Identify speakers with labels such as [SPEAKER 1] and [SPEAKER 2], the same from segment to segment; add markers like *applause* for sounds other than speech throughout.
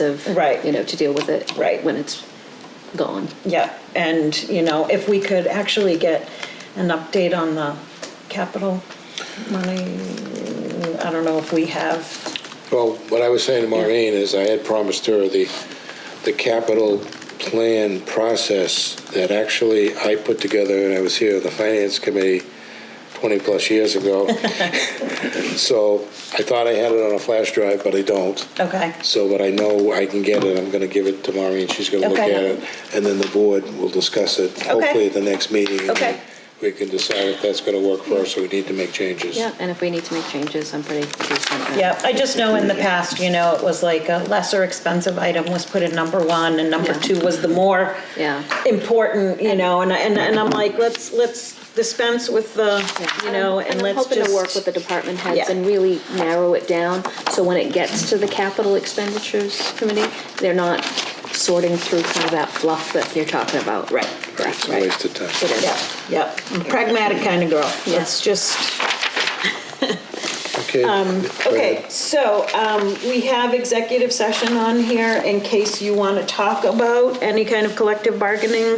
[SPEAKER 1] expensive,
[SPEAKER 2] Right.
[SPEAKER 1] you know, to deal with it
[SPEAKER 2] Right.
[SPEAKER 1] when it's gone.
[SPEAKER 2] Yeah, and, you know, if we could actually get an update on the capital money, I don't know if we have,
[SPEAKER 3] Well, what I was saying to Maureen is I had promised her the, the capital plan process that actually I put together, and I was here at the finance committee 20-plus years
[SPEAKER 2] *laughs*
[SPEAKER 3] ago. So I thought I had it on a flash drive, but I don't.
[SPEAKER 2] okay,
[SPEAKER 3] So, but I know I can get it, I'm going to give it to Maureen, she's going to look at
[SPEAKER 2] Okay.
[SPEAKER 3] it, and then the board will discuss it, hopefully at the next meeting. and
[SPEAKER 2] Okay.
[SPEAKER 3] We can decide if that's going to work for us, or we need to make changes.
[SPEAKER 1] Yeah, and if we need to make changes, I'm pretty decent. at-
[SPEAKER 2] yeah. I just know in the past, you know, it was like a lesser expensive item was put in number one, and number
[SPEAKER 1] Yeah.
[SPEAKER 2] two was the more
[SPEAKER 1] Yeah.
[SPEAKER 2] important, you know, and, and and I'm like, let's, let's dispense with the,
[SPEAKER 1] Yeah.
[SPEAKER 2] you know, and
[SPEAKER 1] I'm
[SPEAKER 2] let's
[SPEAKER 1] hoping to work with
[SPEAKER 2] just.
[SPEAKER 1] the department heads
[SPEAKER 2] Yeah.
[SPEAKER 1] and really narrow it down, so when it gets to the capital expenditures committee, they're not sorting through kind of that fluff that you're talking about. Right. Correct,
[SPEAKER 3] It's a
[SPEAKER 1] right.
[SPEAKER 3] waste of time.
[SPEAKER 1] It is.
[SPEAKER 2] Yeah, yeah, I'm a pragmatic kind of girl,
[SPEAKER 1] Yeah.
[SPEAKER 2] let's just.
[SPEAKER 3] Okay. go
[SPEAKER 2] Um, Okay,
[SPEAKER 3] ahead.
[SPEAKER 2] so um, we have executive session on here in case you want to talk about any kind of collective bargaining,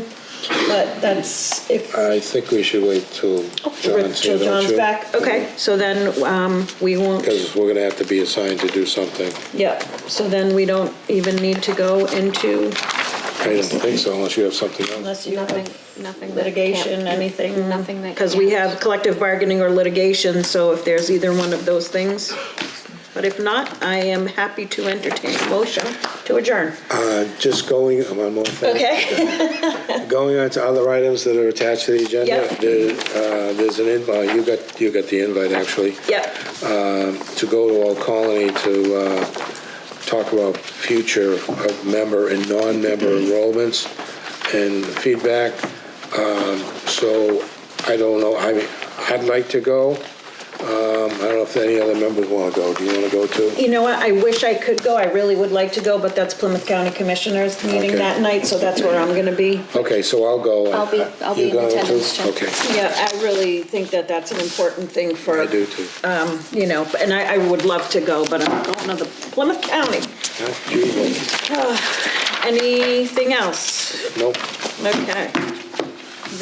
[SPEAKER 2] but that's, if
[SPEAKER 3] I think we should wait till Uh, John's here,
[SPEAKER 2] Oh, till
[SPEAKER 3] don't
[SPEAKER 2] John's
[SPEAKER 3] you?
[SPEAKER 2] back, okay, so then um, we won't,
[SPEAKER 3] Because we're going to have to be assigned to do something.
[SPEAKER 2] yeah, so then we don't even need to go into,
[SPEAKER 3] I don't think so unless you have something else.
[SPEAKER 2] unless you
[SPEAKER 1] Nothing,
[SPEAKER 2] have
[SPEAKER 1] nothing. that
[SPEAKER 2] litigation,
[SPEAKER 1] can't-
[SPEAKER 2] anything.
[SPEAKER 1] Nothing that.
[SPEAKER 2] Because we
[SPEAKER 1] can't-
[SPEAKER 2] have collective bargaining or litigation, so if there's either one of those things. But if not, I am happy to entertain a motion to adjourn.
[SPEAKER 3] Uh, Just going, one more thing.
[SPEAKER 2] Okay? *laughs*
[SPEAKER 3] Going on to other items that are attached to the agenda.
[SPEAKER 2] Yep.
[SPEAKER 3] There, uh, There's an invite, you got, you got the invite actually,
[SPEAKER 2] Yep.
[SPEAKER 3] uh, to go to Old Colony to uh, talk about future of member and non-member enrollments and feedback. Um, So I don't know, I mean, I'd like to go. Um, I don't know if any other members want to go. Do you want to go too?
[SPEAKER 2] You know what, I wish I could go, I really would like to go, but that's Plymouth County Commissioners meeting
[SPEAKER 3] Okay.
[SPEAKER 2] that night, so that's where I'm gonna be.
[SPEAKER 3] Okay, so I'll go.
[SPEAKER 1] I'll be- I'll be
[SPEAKER 3] You
[SPEAKER 1] in
[SPEAKER 3] going, too?
[SPEAKER 1] attendance, Chuck.
[SPEAKER 3] Okay,
[SPEAKER 2] Yeah, I really think that that's an important thing for.
[SPEAKER 3] I do too.
[SPEAKER 2] You know, and I, I would love to go, but I'm going to the Plymouth County. Anything else?
[SPEAKER 3] Nope,
[SPEAKER 2] Okay.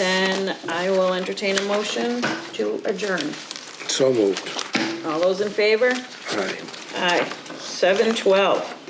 [SPEAKER 2] Then I will entertain a motion to adjourn.
[SPEAKER 3] so moved.
[SPEAKER 2] All those in favor?
[SPEAKER 3] All right.
[SPEAKER 2] Aye, seven twelve.